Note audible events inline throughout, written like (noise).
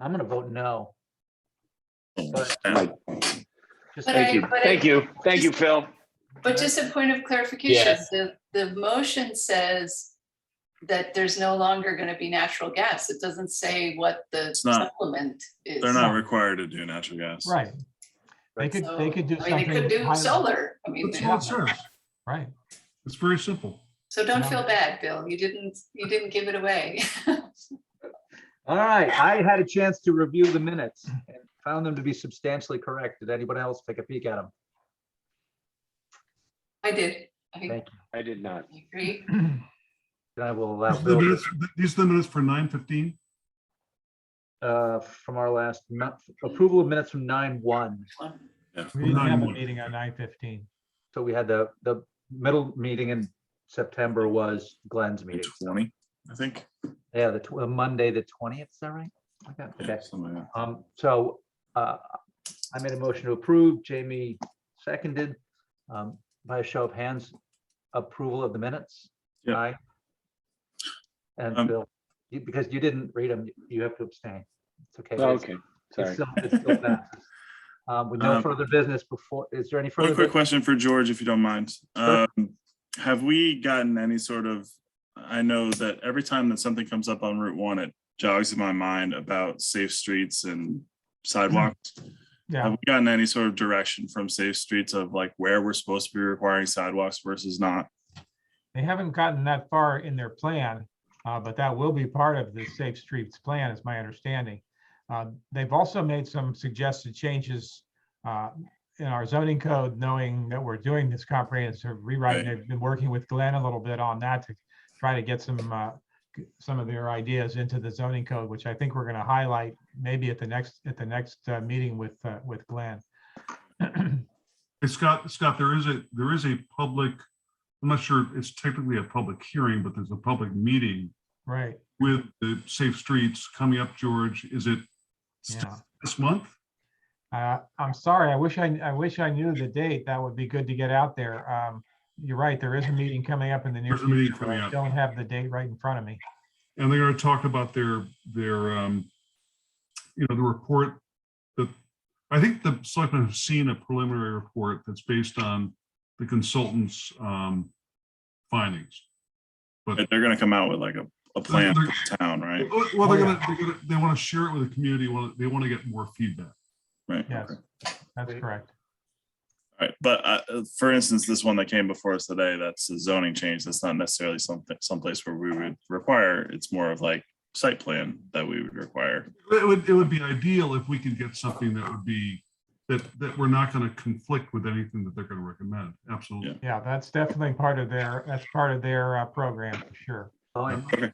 I'm gonna vote no. But Mike, just, But Thank you, I- but I- thank you, thank you, Phil. But just a point of clarification, Yes. the, the motion says that there's no longer going to be natural gas. It doesn't say what the It's not. supplement is. They're not required to do natural gas. right. They could, they So, could do I mean, something. They could do highly- solar. I mean, That's That's they- all it says. Right. It's very simple. so don't Yeah. feel bad, Bill. You didn't, you didn't give it away. (laughs) All right, I had a chance to review the minutes and found them to be substantially correct. Did anybody else take a peek at them? I did. I Thank I did not. agree. Then I will allow These are the Bill, to- minutes- these are the minutes for nine fifteen. uh, from our last, mo- approval of minutes from nine one. One. We didn't have a 9-1. meeting on nine fifteen. So we had the, the middle meeting in September was Glenn's meeting. Twenty, I think. Yeah, the tw- uh, Monday, the twentieth, is that right? Okay, Yeah, Okay, something like that. um, so, uh, I made a motion to approve, Jamie seconded, um, by a show of hands, approval of the minutes. Yeah. Aye. And Um, Bill, you, because you didn't read them, you have to abstain. It's okay. it's- Okay, it's sorry. uh, still- it still (laughs) passes. Um, with no Um, further business before, is there any One further? quick bu- question for George, if you don't mind. Sure. Um, Have we gotten any sort of, I know that every time that something comes up on Route One, it jogs in my mind about safe streets and sidewalks. Have Yeah, we gotten any sort of direction from Safe Streets of like where we're supposed to be requiring sidewalks versus not? they haven't gotten that far in their plan, uh, but that will be part of the Safe Streets Plan, is my understanding. Uh, They've also made some suggested changes uh, in our zoning code, knowing that we're doing this comprehensive rewrite. Right. They've been working with Glenn a little bit on that to try to get some, uh, g- some of their ideas into the zoning code, which I think we're going to highlight maybe at the next, at the next uh, meeting with, uh, with Glenn. Hey, Scott, Scott, there is a, there is a public, I'm not sure if it's technically a public hearing, but there's a public meeting Right, with the Safe Streets coming up, George. Is it yeah. this month? Uh, I'm sorry, I wish I, I wish I knew the date. That would be good to get out there. Um, you're right, there is a meeting coming up in the near There's a meeting future. but coming I up. don't have the date right in front of me. And they're going to talk about their, their, um, you know, the report that, I think the selectmen have seen a preliminary report that's based on the consultant's, um, findings. But They're gonna come out with like a, a plan for the town, right? Well, well, they're Oh, gonna, they're gonna, they want to share it with the community. wanna- They want to get more feedback. Right. Yes, okay. that's Wait. correct. Right, but uh, uh, for instance, this one that came before us today, that's a zoning change. That's not necessarily something, someplace where we would require. It's more of like site plan that we would require. It would, it would be ideal if we could get something that would be, that, that we're not going to conflict with anything that they're going to recommend. Absolutely. Yeah, that's definitely part of their, that's part of their, uh, program, for sure. Oh, and Okay.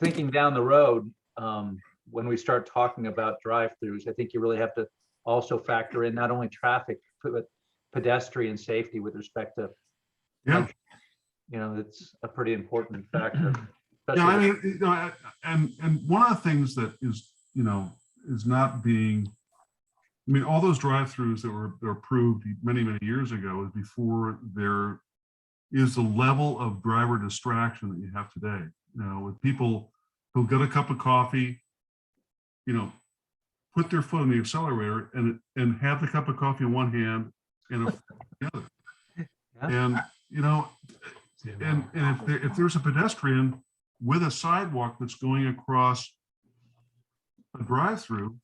Thinking down the road, um, when we start talking about drive-throughs, I think you really have to also factor in not only traffic, but pedestrian safety with respect to, Yeah. you know, that's a pretty (clears throat) important factor. Yeah, I especially mean, you know, I- and, and one of the things that is, you know, is not being, I mean, all those drive-throughs that were, that were approved many, many years ago is before there is the level of driver distraction that you have today, you know, with people who get a cup of coffee, you know, put their foot on the accelerator and, and have the cup of coffee in one hand and a- the other. Yeah. And, you know, and, and if there, if there's a pedestrian with a sidewalk that's going across a drive-through,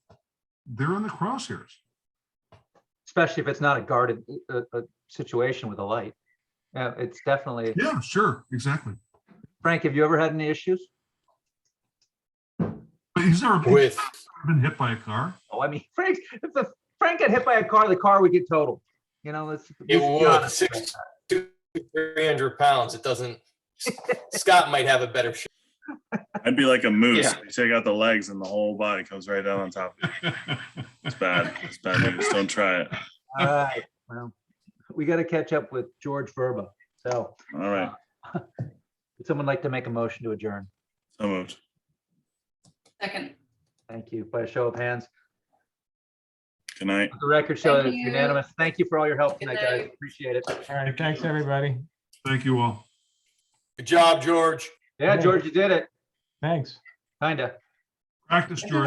they're in the crosshairs. Especially if it's not a guarded, uh, uh, situation with a light. Yeah, it's definitely, Yeah, sure, exactly. Frank, have you ever had any issues? But he's never been- with, been hit by a car. Oh, I mean, (laughs) Frank, if the, Frank got hit by a car, the car would get totaled, you know, let's. it let's be was honest. (laughs) six, to three hundred pounds. It doesn't, (laughs) Scott might have a better shot. I'd be like a moose. Yeah. You take out the legs and the whole body comes right down on top. It's bad. It's bad news. Don't try it. All right, well, we gotta catch up with George Verba, so All right. would someone like to make a motion to adjourn? So moved. Second. Thank you, by a show of hands. Good night. The record show that it's Thank you. unanimous. Thank you for all your help Good tonight, guys. night. Appreciate it. All right, thanks, everybody. Thank you all. Good job, George. Yeah, George, you did it, Thanks. kinda. Practice, George.